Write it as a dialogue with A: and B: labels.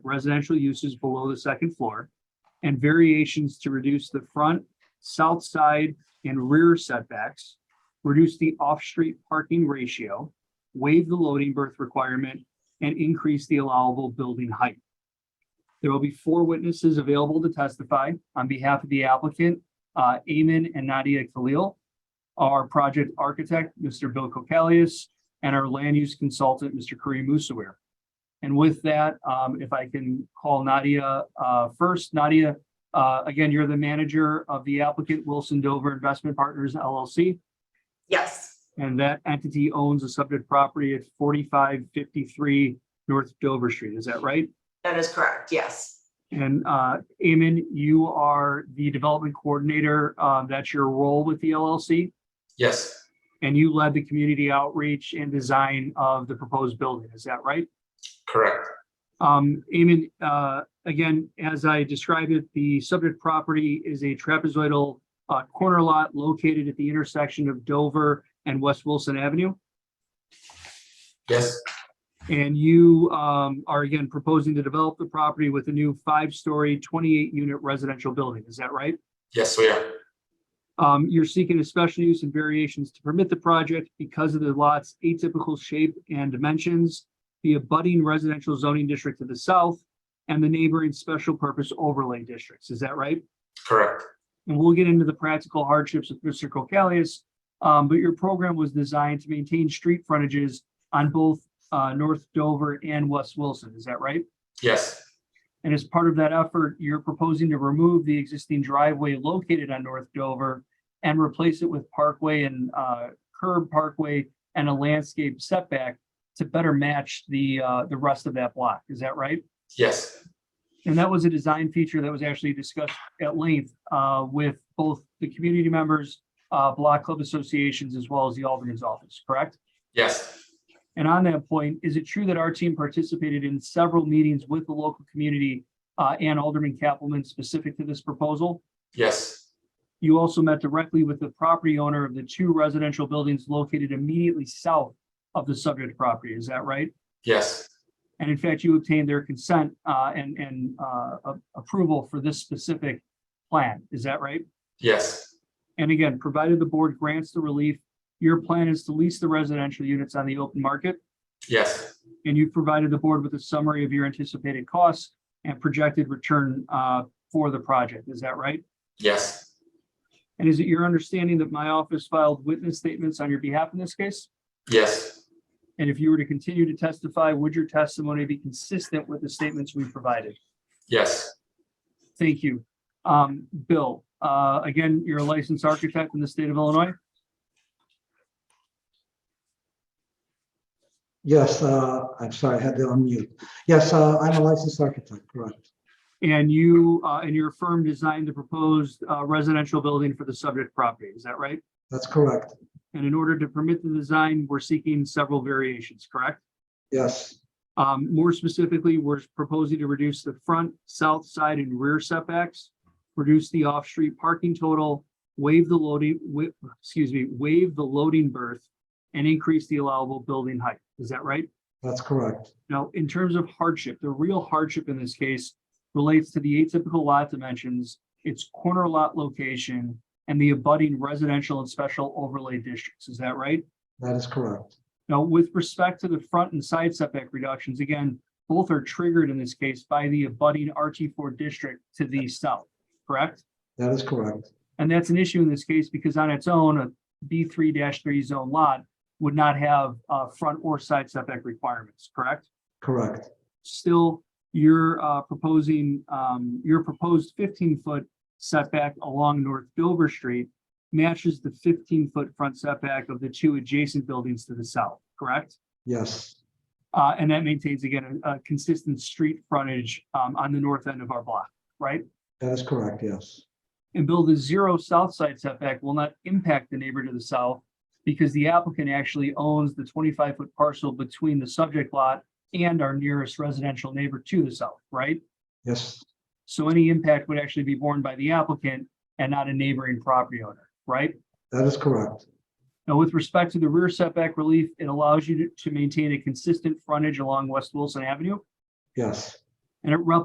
A: residential uses below the second floor and variations to reduce the front, south side, and rear setbacks, reduce the off-street parking ratio, waive the loading berth requirement, and increase the allowable building height. There will be four witnesses available to testify on behalf of the applicant, uh, Amen and Nadia Khalil, our project architect, Mr. Bill Kokalius, and our land use consultant, Mr. Kareem Musawir. And with that, um, if I can call Nadia, uh, first, Nadia, uh, again, you're the manager of the applicant Wilson Dover Investment Partners LLC,
B: Yes,
A: and that entity owns the subject property at forty-five fifty-three North Dover Street, is that right?
B: that is correct. Yes,
A: And, uh, Amen, you are the development coordinator, uh, that's your role with the LLC,
C: Yes,
A: and you led the community outreach and design of the proposed building, is that right?
C: correct.
A: Um, Eamon, uh, again, as I described it, the subject property is a trapezoidal uh, corner lot located at the intersection of Dover and West Wilson Avenue.
C: Yes,
A: And you, um, are again proposing to develop the property with a new five-story, twenty-eight unit residential building. Is that right?
C: yes, we are.
A: Um, you're seeking a special use and variations to permit the project because of the lot's atypical shape and dimensions, the abutting residential zoning district to the south, and the neighboring special purpose overlay districts. Is that right?
C: Correct.
A: And we'll get into the practical hardships with Mr. Kokalius. Um, but your program was designed to maintain street frontages on both, uh, North Dover and West Wilson. Is that right?
C: Yes,
A: And as part of that effort, you're proposing to remove the existing driveway located on North Dover and replace it with parkway and uh, curb parkway and a landscape setback to better match the, uh, the rest of that block. Is that right?
C: yes,
A: And that was a design feature that was actually discussed at length uh, with both the community members, uh, Block Club associations, as well as the Alderman's office, correct?
C: yes,
A: And on that point, is it true that our team participated in several meetings with the local community uh, and Alderman Kappelman specific to this proposal?
C: yes,
A: You also met directly with the property owner of the two residential buildings located immediately south of the subject property, is that right?
C: yes,
A: And in fact, you obtained their consent uh, and, and uh, a- approval for this specific plan, is that right?
C: yes,
A: And again, provided the board grants the relief, your plan is to lease the residential units on the open market?
C: yes,
A: and you've provided the board with a summary of your anticipated costs and projected return uh, for the project. Is that right?
C: yes,
A: And is it your understanding that my office filed witness statements on your behalf in this case?
C: yes,
A: And if you were to continue to testify, would your testimony be consistent with the statements we provided?
C: yes,
A: Thank you. Um, Bill, uh, again, you're a licensed architect in the state of Illinois.
D: Yes, uh, I'm sorry, I had to unmute. Yes, uh, I'm a licensed architect, correct.
A: And you uh, and your firm designed the proposed uh, residential building for the subject property. Is that right?
D: That's correct.
A: And in order to permit the design, we're seeking several variations, correct?
D: Yes,
A: Um, more specifically, we're proposing to reduce the front, south side and rear setbacks, reduce the off-street parking total, waive the loading, wi- excuse me, waive the loading berth and increase the allowable building height. Is that right?
D: that's correct.
A: Now, in terms of hardship, the real hardship in this case relates to the atypical lot dimensions, its corner lot location, and the abutting residential and special overlay districts. Is that right?
D: That is correct.
A: Now, with respect to the front and side setback reductions, again, both are triggered in this case by the abutting RT four district to the south, correct?
D: That is correct.
A: And that's an issue in this case because on its own, a B three three zone lot would not have uh front or side setback requirements, correct?
D: Correct.
A: Still, you're uh proposing, um, your proposed fifteen foot setback along North Dover Street matches the fifteen foot front setback of the two adjacent buildings to the south, correct?
D: Yes,
A: Uh, and that maintains again, a, a consistent street frontage, um, on the north end of our block, right?
D: that is correct. Yes,
A: And Bill, the zero south side setback will not impact the neighbor to the south because the applicant actually owns the twenty-five foot parcel between the subject lot and our nearest residential neighbor to the south, right?
D: yes,
A: So any impact would actually be borne by the applicant and not a neighboring property owner, right?
D: that is correct.
A: Now, with respect to the rear setback relief, it allows you to, to maintain a consistent frontage along West Wilson Avenue.
D: Yes,
A: and it rep-